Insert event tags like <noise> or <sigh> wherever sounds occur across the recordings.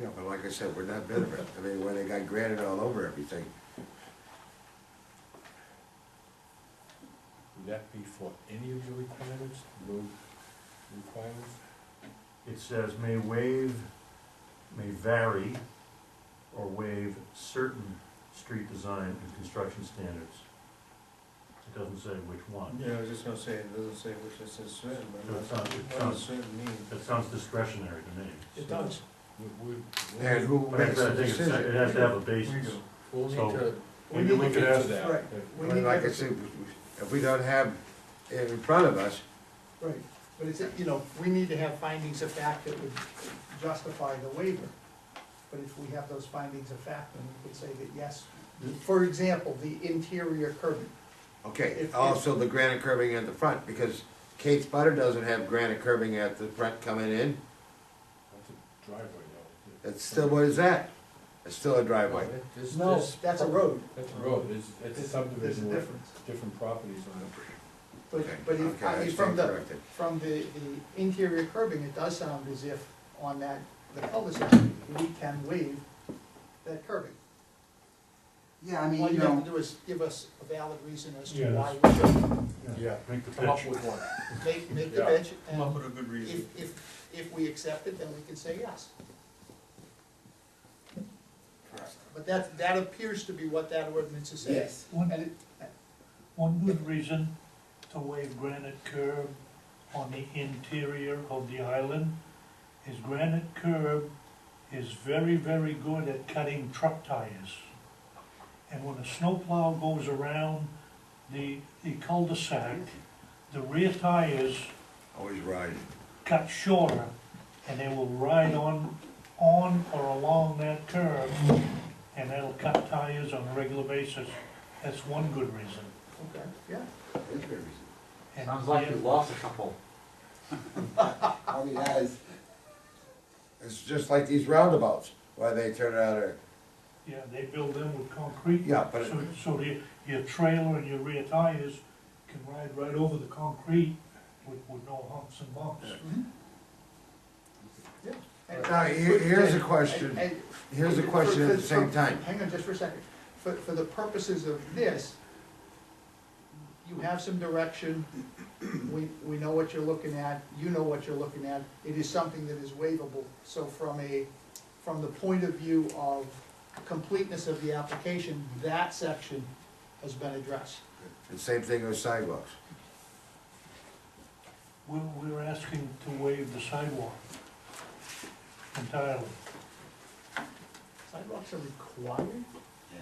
Yeah, but like I said, we're not veteran. I mean, when they got granite all over everything, Would that be for any of your requirements, road requirements? It says may waive, may vary, or waive certain street design and construction standards. It doesn't say which one. Yeah, I was just gonna say, it doesn't say which it says certain, but So it what sounds, it does sounds, certain mean? it sounds discretionary to me. It does. We, we. we'll- and who But I makes the think it's- it decision? has to have a We basis. do. We'll need So, to, we maybe need to we look could into ask- that. Right. but- We But need like I to, said, if we don't have it in front of us, right, but it's, you know, we need to have findings of fact that would justify the waiver. But if we have those findings of fact, then we could say that yes, for example, the interior curbing. okay, If- also the granite curbing at the front, because Kate's Butter doesn't have granite curbing at the front coming in. That's a driveway though. It's still, what is that? It's still a driveway. This- this- That's a road, That's a road, it's, it's a there's a subdivision with difference. different properties on it. But, Okay, but if, okay, I I mean, stand from the, corrected. from the, the interior curbing, it does sound as if on that, the cul-de-sac, we can waive that curbing. Yeah, I All mean, you you have know, to do is give us a valid reason as to Yeah, why we should Yeah. Make the pitch. Come up with one. make, make the Yeah. bench, Come up and with a good if, reason. if, if we accept it, then we can say yes. But that, that appears to be what that ordinance is saying. Yes. One- And it- One good reason to waive granite curb on the interior of the island is granite curb is very, very good at cutting truck tires. And when a snowplow goes around the, the cul-de-sac, the rear tires Always ride. cut shorter and they will ride on, on or along that curb and that'll cut tires on a regular basis. That's one good reason. Okay, yeah. And Sounds like the- you lost a couple. all he has, It's just like these roundabouts, why they turn out or, Yeah, they build them with concrete. yeah, but. So, so your, your trailer and your rear tires can ride right over the concrete with, with no humps and bumps. And- Now, Mm-hmm. here- here's a question. Mm-hmm. And- Here's a For- question at for- the same for- time. Hang on just for a second. For, for the purposes of this, you have some direction, we, we know what you're looking at, you know what you're looking at. It is something that is waivable. So from a, from the point of view of completeness of the application, that section has been addressed. The same thing with sidewalks. We're, we're asking to waive the sidewalk entirely. Sidewalks are required? Yeah.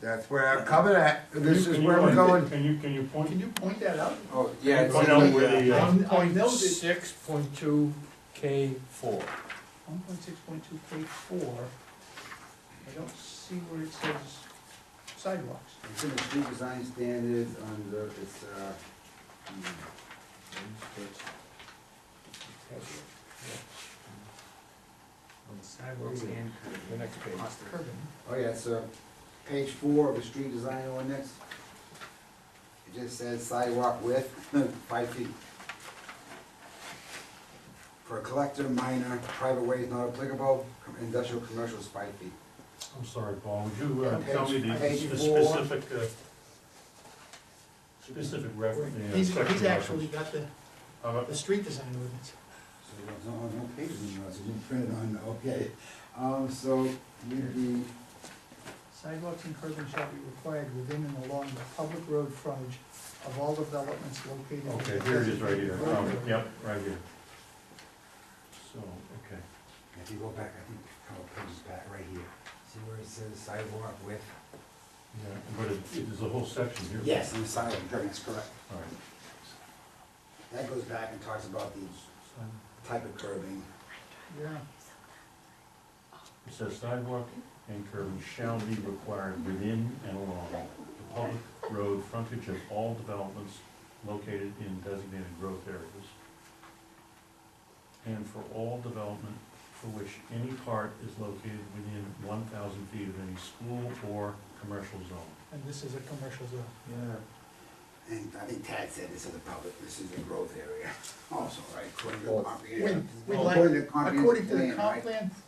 That's where I'm coming at, Can this you- is can where you- we're going. Can you, can you Can point, you point that out? Oh, yeah, point it's- out where the, uh, I know that- Six point two K four. One point six point two, page four, I don't see where it says sidewalks. it's in the street design standards under, it's, uh, hmm, Sidewalks and. The next page. Curbing. oh yeah, it's, uh, page four of the street design ordinance. It just says sidewalk width, <laughs> five feet. For collector, minor, private ways not applicable, com- industrial, commercial is five feet. I'm sorry, Paul, would you uh, tell me the Page- the page four. specific, uh, specific reference? the, uh, He's, section he's actually reference? Uh, got the, How about- the street design ordinance. So it was on, on pages, so you didn't print it on, okay. Um, so, you'd be, Sidewalks and curbing shall be required within and along the public road frontage of all developments located. in Okay, the here it is right here, designated Um, road. yep, right here. So, okay. if you go back, I think, a couple pages back, right here, see where it says sidewalk width? Yeah, but it, there's a whole section here. Yes, and the sidewalk, that's correct. All right. That goes back and talks about the type of curbing. Yeah, It says sidewalk and curbing shall be required within and along the public road frontage of all developments located in designated growth areas. And for all development for which any part is located within one thousand feet of any school or commercial zone. and this is a commercial zone. Yeah. And I think Tad said this is a public, this is a growth area also, right? According to the Well, comprehensive- When, we Well, like, according to the according to the comprehensive plan, comp right? plan,